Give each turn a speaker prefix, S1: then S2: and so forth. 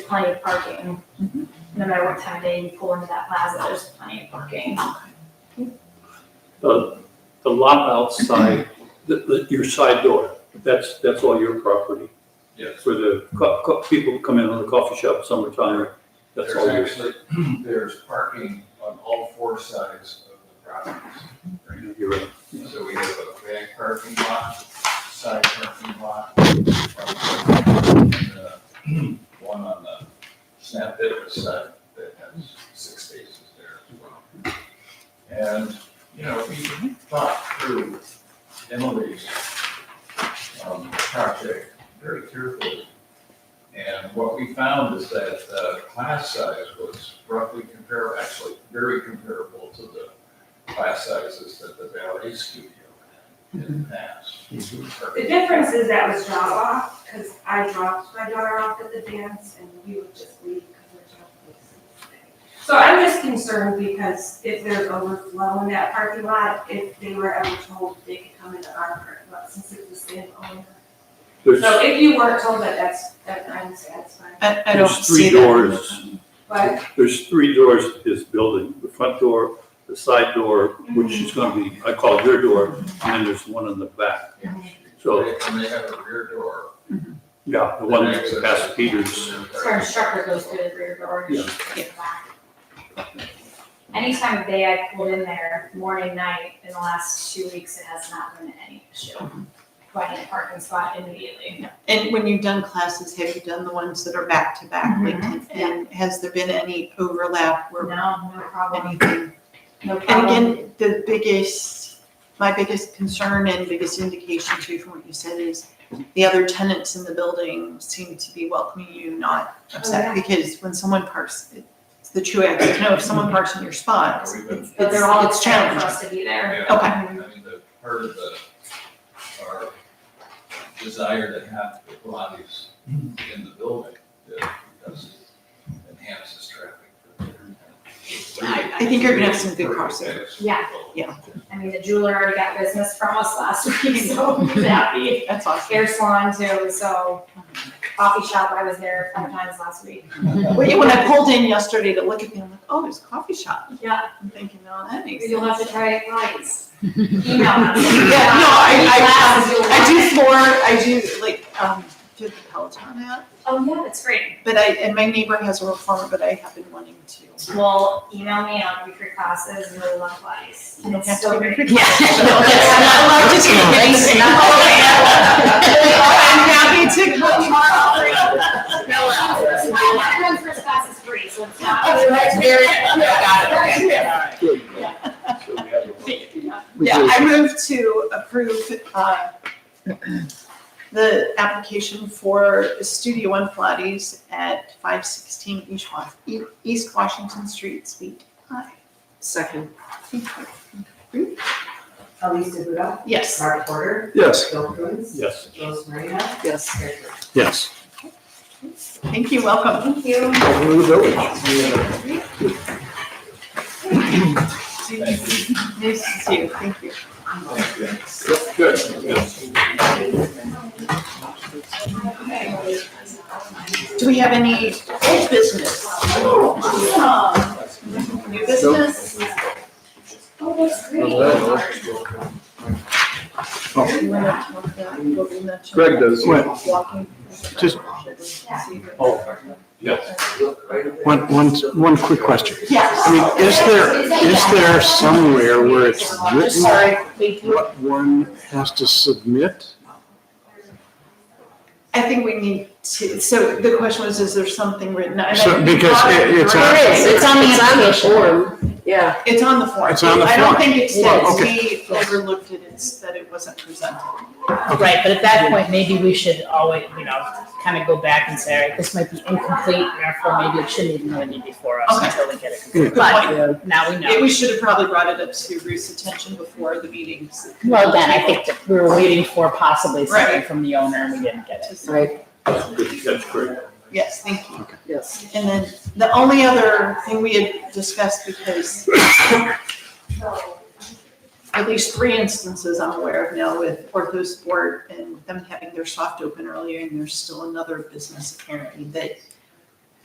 S1: plenty of parking. No matter what time of day you pull into that plaza, there's plenty of parking.
S2: The lot outside, the, the, your side door, that's, that's all your property.
S3: Yes.
S2: For the co- co- people who come in on the coffee shop summertime, that's
S3: There's
S2: all yours.
S3: actually, there's parking on all four sides of the properties.
S2: You're right.
S3: So we have a back parking lot, side parking lot, and, uh, one on the snap fitness side that has six spaces there as well. And, you know, we thought through Emily's, um, project very carefully. And what we found is that the class size was roughly comparable, actually very comparable to the class sizes that the ballet studio had in the past.
S4: The difference is that was drop off, because I dropped my daughter off at the dance and we would just leave because there's no place to stay. So I'm just concerned because if there's overflow in that parking lot, if they were ever told they could come into our parking lot since it's the same owner.
S2: There's,
S4: So if you weren't told that, that's, that I'm satisfied.
S5: I, I don't
S2: there's
S5: see
S2: three
S5: that.
S2: doors,
S4: But
S2: there's three doors to this building, the front door, the side door, which is gonna be, I call it your door, and then there's one in the back. So,
S3: And they have a rear door.
S2: yeah, the one that's past Peters.
S1: So our instructor goes through the rear door. and she goes back. Any time of day I pulled in there, morning, night, in the last two weeks, it has not been any issue. Finding a parking spot immediately.
S5: And when you've done classes, have you done the ones that are back to back? Like,
S1: Mm-hmm.
S5: and has there been any overlap
S1: No,
S5: or
S1: no problem,
S5: anything?
S1: no
S5: And
S1: problem.
S5: again, the biggest, my biggest concern and biggest indication too from what you said is the other tenants in the building seem to be welcoming you, not
S1: Oh,
S5: upset. Because when someone parks, it's the two exits, no, if someone parks in your spot,
S3: We've been,
S1: But they're all
S5: it's- it's
S1: excited for
S5: challenging.
S1: us to be there.
S3: yeah,
S5: okay.
S3: I mean, the part of the, our desire to have the Pilates in the building, that does enhances traffic. for the
S5: I, I think you're gonna have some good crossover.
S1: Yeah.
S5: Yeah.
S1: I mean, the jeweler already got business from us last week, so happy.
S5: That's awesome.
S1: Hair salon too, so coffee shop, I was there five times last week.
S5: Well, When I pulled in yesterday to look at them, I'm like, oh, there's a coffee shop.
S1: Yeah.
S5: I'm thinking, oh, that makes sense.
S1: You'll have to try it once. Email us. Yeah, no,
S5: Yeah, no, I, I, I do floor, I do like, um, do the Peloton app,
S1: Oh, yeah, that's great.
S5: but I, and my neighbor has a reformer, but I have been wanting to.
S1: Well, email me on weekly classes, really love Pilates. And it's so great.
S5: Yeah, no, that's not allowed to take place.
S1: It's
S5: I'm
S1: not
S5: happy to come tomorrow.
S1: My one first class is free, so it's not.
S2: Good.
S5: Yeah.
S2: So we have a-
S5: Yeah, I move to approve, uh, the application for Studio One Pilates at five sixteen East Wash, E- East Washington Street, Suite I.
S6: Second. Alisa Budo,
S5: Yes.
S6: Mark Porter,
S2: Yes.
S6: Bill Coons,
S2: Yes.
S6: Rose Marina.
S5: Yes.
S6: Gary Frank.
S2: Yes.
S5: Thank you, welcome. Thank you.
S2: Over the village.
S3: Thank you.
S5: Nice to see you, thank you.
S3: Thank you.
S2: Good, good.
S5: Do we have any old business? New business?
S1: Oh, that's
S5: You wanna talk about what we mentioned?
S7: Greg does.
S5: Walking.
S7: Just-
S2: Yes.
S7: One, one, one quick question.
S5: Yes.
S7: I mean, is there, is there somewhere where it's
S5: Just
S7: written
S5: sorry, we do-
S7: what one has to submit?
S5: I think we need to, so the question was, is there something written? And I
S7: So,
S5: think-
S7: because it- it's a-
S5: There is,
S8: It's on the application.
S6: Yeah.
S5: It's on the form.
S7: It's on the
S5: I don't
S7: form.
S5: think it's that
S7: Well,
S5: we overlooked it, it's that it wasn't presented.
S8: Right, but at that point, maybe we should always, you know, kind of go back and say, all right, this might be incomplete, and therefore maybe it shouldn't even really be before us
S5: Okay.
S8: until we get it.
S7: Yeah.
S8: complete. But now we
S5: Yeah,
S8: know.
S5: we should have probably brought it up to Ruth's attention before the meetings.
S8: Well, again, I think that we were waiting for possibly something
S5: Right.
S8: from the owner and we didn't get it.
S6: Right.
S2: Good, That's great.
S5: Yes, thank you.
S6: Yes.
S5: And then the only other thing we had discussed, because at least three instances I'm aware of now with Ortho Sport and them having their soft open earlier, and there's still another business apparently that